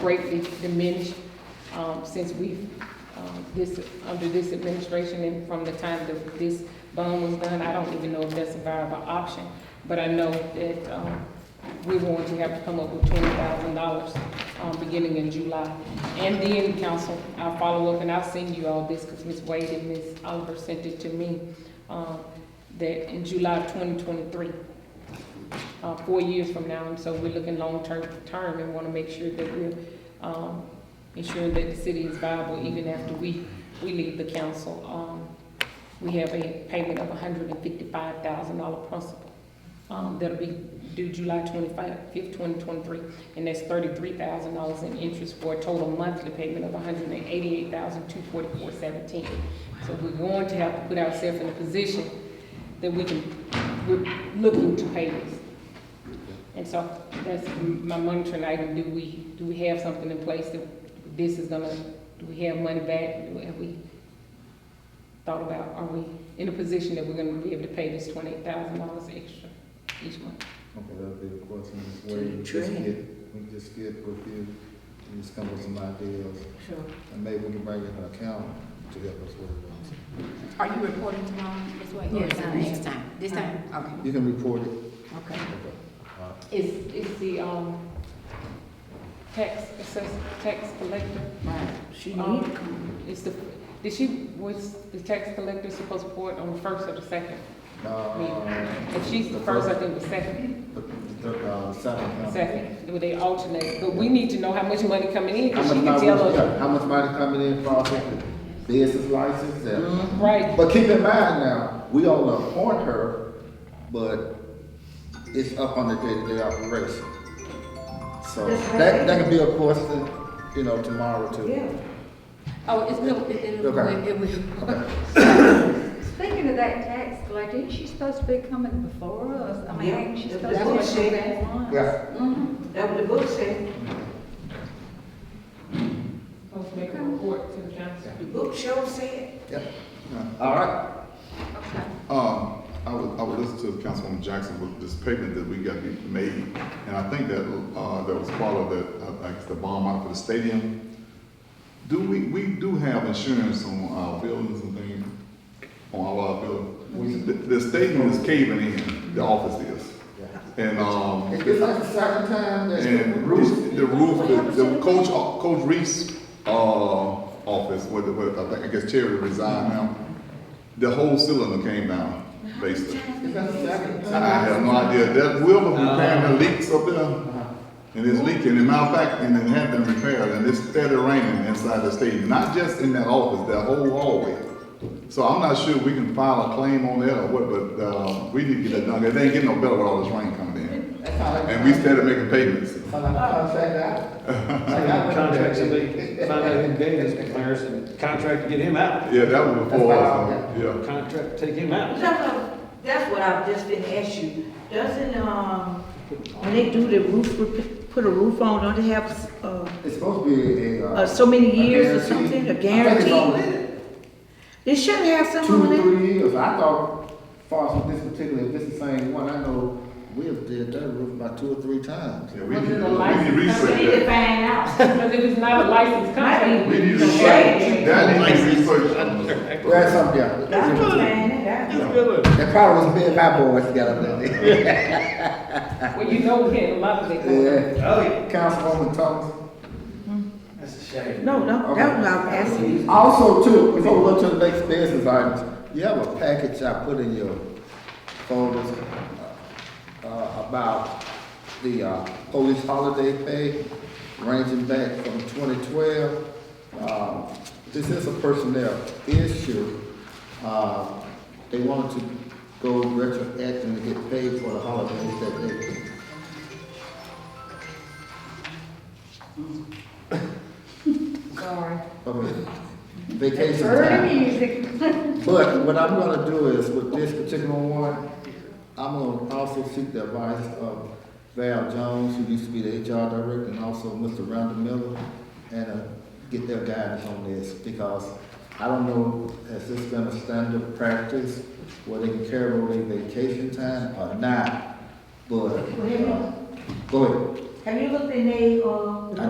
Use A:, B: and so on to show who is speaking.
A: greatly diminished, um, since we've, um, this, under this administration and from the time that this bond was done, I don't even know if that's a viable option. But I know that, um, we want to have to come up with twenty thousand dollars, um, beginning in July. And then, council, I'll follow up and I'll send you all this, because Ms. Wade and Ms. Oliver sent it to me, um, that in July of twenty twenty-three, uh, four years from now, and so we're looking long-term, term, and want to make sure that we're, um, ensuring that the city is viable even after we, we leave the council. Um, we have a payment of hundred and fifty-five thousand dollar principal, um, that'll be due July twenty-five, fifth, twenty twenty-three, and that's thirty-three thousand dollars in interest for a total monthly payment of $188,244.17. So we're going to have to put ourselves in a position that we can, we're looking to pay this. And so that's my monitoring item, do we, do we have something in place that this is gonna, do we have money back? Do- Have we thought about, are we in a position that we're gonna be able to pay this twenty-eight thousand dollars extra each month?
B: Okay, that'll be the question, this
C: To
B: way we just
C: train.
B: get, we just get with you, and just come up with some ideas,
C: Sure.
B: and maybe we can bring in an accountant to help us with it.
D: Are you reporting tomorrow, Ms. Wade?
C: Yes, I am.
D: This time, this time, okay,
B: You can report it.
D: okay.
B: Okay. All right.
A: Is, is the, um, tax assess, tax collector,
D: Right.
C: She
A: Um,
C: need to come.
A: is the, did she, was the tax collector supposed to report on the first or the second?
B: Uh,
A: If she's the first, I think the second.
B: The, the, uh, second. account.
A: Second, would they alternate, but we need to know how much money coming in,
B: How
A: because
B: much
A: she can
B: money,
A: tell us,
B: yeah, how much money coming in for our second business license and
D: Um,
A: right,
B: But keep in mind now, we don't appoint her, but it's up on the day-to-day operation. So
C: That's right.
B: that, that could be a question, you know, tomorrow too.
C: Yeah.
D: Oh, it's, no, it, it, it
B: Okay.
D: it will.
E: Speaking of that tax collector, isn't she supposed to be coming before us? I mean,
C: Yeah,
E: ain't she
C: that's
E: supposed to
C: what
E: be
C: she
E: coming
C: said.
E: back once?
B: Yeah,
E: Mhm.
C: That was the book said,
A: supposed to make a report to the council.
C: the book show said.
B: yeah. All right,
E: Okay.
F: Um, I would, I would listen to Councilwoman Jackson with this payment that we got made, and I think that, uh, that was part of that, uh, like the bomb out for the stadium. Do we, we do have insurance on our buildings and things, on all our buildings? The, the stadium is caving in, the office is,
B: yeah.
F: and, um.
B: It's like the second time that
F: And
B: Bruce,
F: roof, the roof, the, the coach, Coach Reese, uh, office, where, the- where, uh, I think, I guess Terry resigned now. The whole cylinder came down, basically.
B: it's like the second
F: I have
B: time.
F: no idea, that Wilbur repairing the leaks up there,
B: Uh-huh.
F: and it's leaking, and matter of fact, and it had been repaired, and it's steady raining inside the stadium, not just in that office, that whole hallway. So I'm not sure we can file a claim on that or what, but, uh, we need to get that done, it ain't getting no better with all this rain coming in.
B: That's how that-
F: And we started making payments.
B: That's how that contract out. Like, I went-
G: Contact somebody, find out who gave this Clarence, and contract to get him out.
F: Yeah, that was before,
B: That's
F: us,
B: fine.
F: yeah.
G: Contract to take him out.
C: That's what- That's what I've just been asked you. Doesn't, um, when they do the roof, rep- put a roof on, don't they have, uh,
B: It's supposed to be a, uh.
C: uh, so many
B: a
C: years
B: guarantee.
C: or something, a
B: I think it's all-
C: guarantee? They should have
B: two
C: some
B: or
C: on it.
B: three years. I thought, far as this particular, if this is the same one, I know we have did that roof about two or three times.
F: Yeah, we
A: Was
F: need,
A: it a
F: we need
A: license?
C: We need to
F: research that.
C: find out.
A: Because if it's not a licensed contract.
F: We need
A: don't
F: to,
C: Right.
F: that needs research on
B: That's something,
C: That's what I'm
B: yeah.
C: saying, that's-
B: That probably was me and my boys got up there.
A: Well, you know, we had a lot of that. going on.
B: Yeah.
G: Oh,
B: Councilwoman Thomas.
C: No, no, that's what I'm asking you.
B: Also too, before we go to the next business items, you have a package I put in your folders uh, uh, about the uh, police holiday pay ranging back from twenty twelve. Um, This is a personnel issue. Uh, They wanted to go retroactive and get paid for the holidays that they.
E: Sorry.
B: I mean, Vacation
E: Heard
B: time.
E: the music.
B: But what I'm gonna do is with this particular one, I'm gonna also seek the advice of Val Jones, who used to be the HR director, and also Mr. Rhonda Miller, and uh, get their guidance on this, because I don't know, has this been a standard practice where they can carry over their vacation time or not? But, uh, go ahead.
C: Have you looked in the, uh,